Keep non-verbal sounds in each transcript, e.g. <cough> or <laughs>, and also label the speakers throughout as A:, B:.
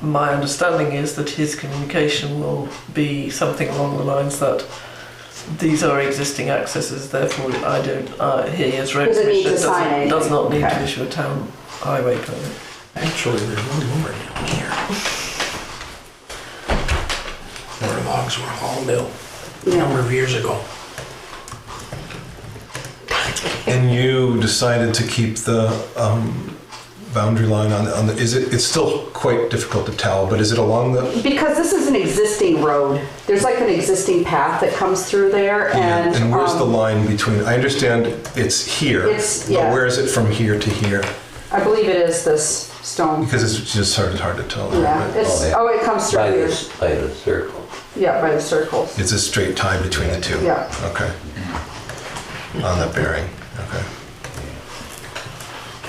A: my understanding is that his communication will be something along the lines that these are existing accesses, therefore I don't, uh, he as road
B: Doesn't need to
A: commissioner doesn't,
B: sign
A: does
B: anything.
A: not need to
B: Okay.
A: issue a town highway permit.
C: Actually, there's one more down here. Where logs were hauled out a number
B: Yeah.
C: of years ago.
D: And you decided to keep the um, boundary line on the, on the, is it, it's still quite difficult to tell, but is it along the,
B: Because this is an existing road. There's like an existing path that comes through there and.
D: and where's the
B: um,
D: line between, I understand it's here,
B: It's-
D: but
B: yeah.
D: where is it from here to here?
B: I believe it is this stone.
D: Because it's just sort of hard to tell.
B: Yeah,
D: right?
B: it's, oh, it comes through
E: By
B: here.
E: the, by the circle.
B: Yeah, by the circles.
D: It's a straight tie between the two?
B: Yeah.
D: Okay. On that bearing, okay.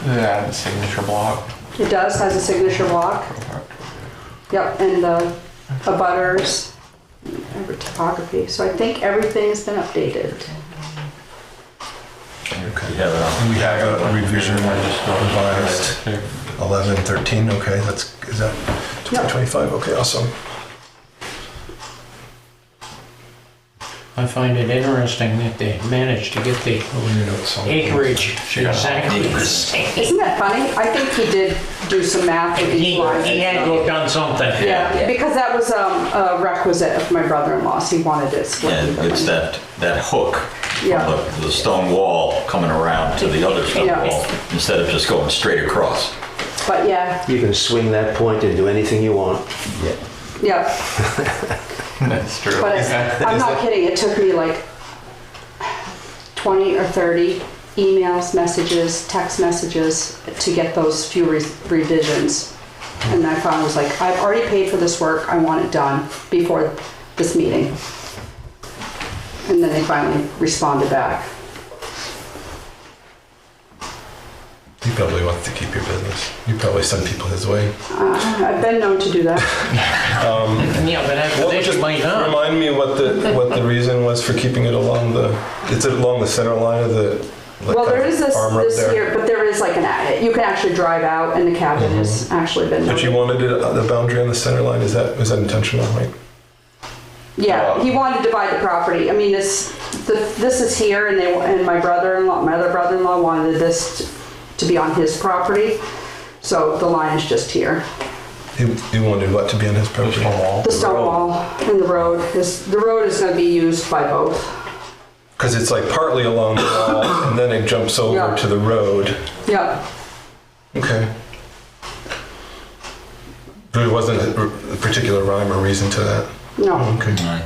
F: Yeah, the signature block.
B: It does, has a signature block. Yep, and the abutters, every topography. So I think everything's been updated.
D: Okay.
F: Yeah,
D: And we have a revision revised
F: Too.
D: 11, 13, okay, that's, is that 2025, okay, awesome.
G: I find it interesting that they managed to get the
D: What were your notes on?
G: acreage exactly the same.
B: Isn't that funny? I think he did do some math with
G: He,
B: these lines.
G: he had to have done something.
B: Yeah, because that was um, a requisite of my brother-in-law's. He wanted it split.
H: And
B: evenly.
H: it's that, that hook,
B: Yeah.
H: the, the stone wall coming around to the other stone
B: Yeah.
H: wall, instead of just going straight across.
B: But yeah,
E: You can swing that point and do anything you want.
B: yeah.
F: <laughs> That's true.
B: But it- I'm not kidding, it took me like 20 or 30 emails, messages, text messages to get those few re- revisions. And I finally was like, I've already paid for this work, I want it done before this meeting. And then they finally responded back.
D: You probably want to keep your business. You probably send people his way.
B: Uh, I've been known to do that.
G: Yeah, but after this, you might not.
D: Remind me what the, what the reason was for keeping it along the, it's along the center line of the, like,
B: Well, there is this,
D: arm up
B: this
D: there.
B: here, but there is like an, a- you can actually drive out and the cabin has actually been.
D: Mm-hmm. But you wanted it, uh, the boundary on the center line, is that, was that intentional, right?
B: Yeah, he wanted to buy the property. I mean, it's, the, this is here and they, and my brother-in-law, my other brother-in-law wanted this to be on his property. So the line is just here.
D: He, he wanted what to be on his property?
B: The stone wall and the road is, the road is gonna be used by both.
D: Because it's like partly along the wall, and then it jumps over
B: Yeah.
D: to the road.
B: Yeah,
D: Okay. There wasn't a, a particular rhyme or reason to that. Oh,
B: no,
D: Okay.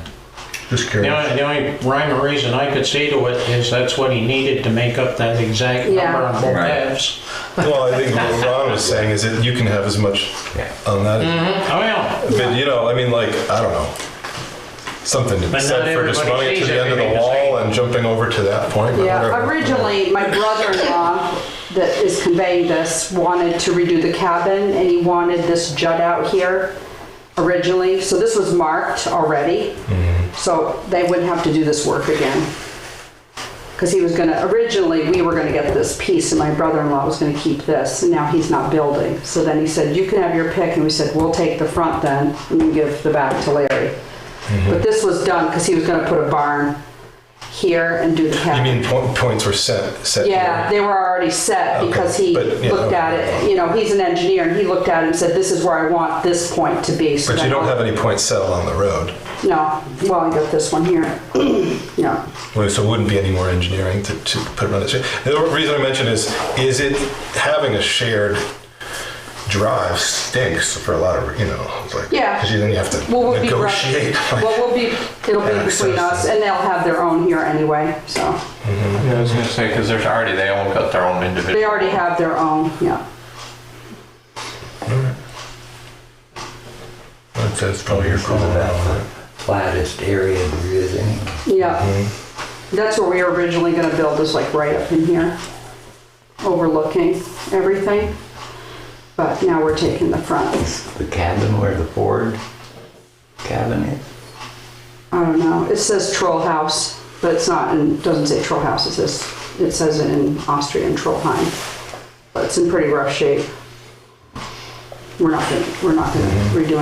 D: Just
G: The
D: curious.
G: only, the only rhyme or reason I could see to it is that's what he needed to make up that exact
B: Yeah.
G: number on both
H: Right.
G: halves.
D: Well, I think what Ron was saying is that you can have as much on that.
B: Mm-hmm.
G: Oh, yeah.
D: But you know, I mean, like I don't know, something to be
G: But not
D: said for just
G: everybody
D: running to
G: sees
D: the end of the
G: everything the
D: wall and jumping over to that point. but
B: yeah.
D: whatever.
B: Originally, my brother-in-law that is conveying this wanted to redo the cabin and he wanted this jut out here originally. So this was marked already.
D: Mm-hmm.
B: So they wouldn't have to do this work again. Because he was gonna, originally, we were gonna get this piece and my brother-in-law was gonna keep this. And now he's not building. So then he said, you can have your pick. And we said, we'll take the front then and you give the back to Larry.
D: Mm-hmm.
B: But this was done because he was gonna put a barn here and do the
D: You
B: cabin.
D: mean point, points were set set?
B: Yeah,
D: here.
B: they were already set
D: Okay,
B: because he
D: but, yeah,
B: looked at it,
D: okay.
B: you know, he's an engineer and he looked at it and said, this is where I want this point to be. So
D: But you
B: then-
D: don't have any points set along the road.
B: No, well, I got this one here. <clears throat> No.
D: Well, So it wouldn't be any more engineering to, to put it on the shared. The reason I mention is, is it having a shared drive stinks for a lot of, you know, it's like,
B: Yeah.
D: Because then you have to
B: Well, we'll be,
D: negotiate. <laughs>
B: well, we'll be, it'll be between us and they'll have their own here anyway, so.
F: Yeah, I was gonna say, because there's already, they all got their own individual.
B: They already have their own, yeah.
D: That's that's probably your call.
E: Flattest area there is any.
B: Yeah. That's where we were originally gonna build, is like right up in here, overlooking everything. But now we're taking the fronts.
E: The cabin where the Ford cabin is.
B: I don't know. It says Troll House, but it's not, and doesn't say Troll House. It says, it says it in Austrian Trollheim. But it's in pretty rough shape. we're not gonna, we're not gonna redo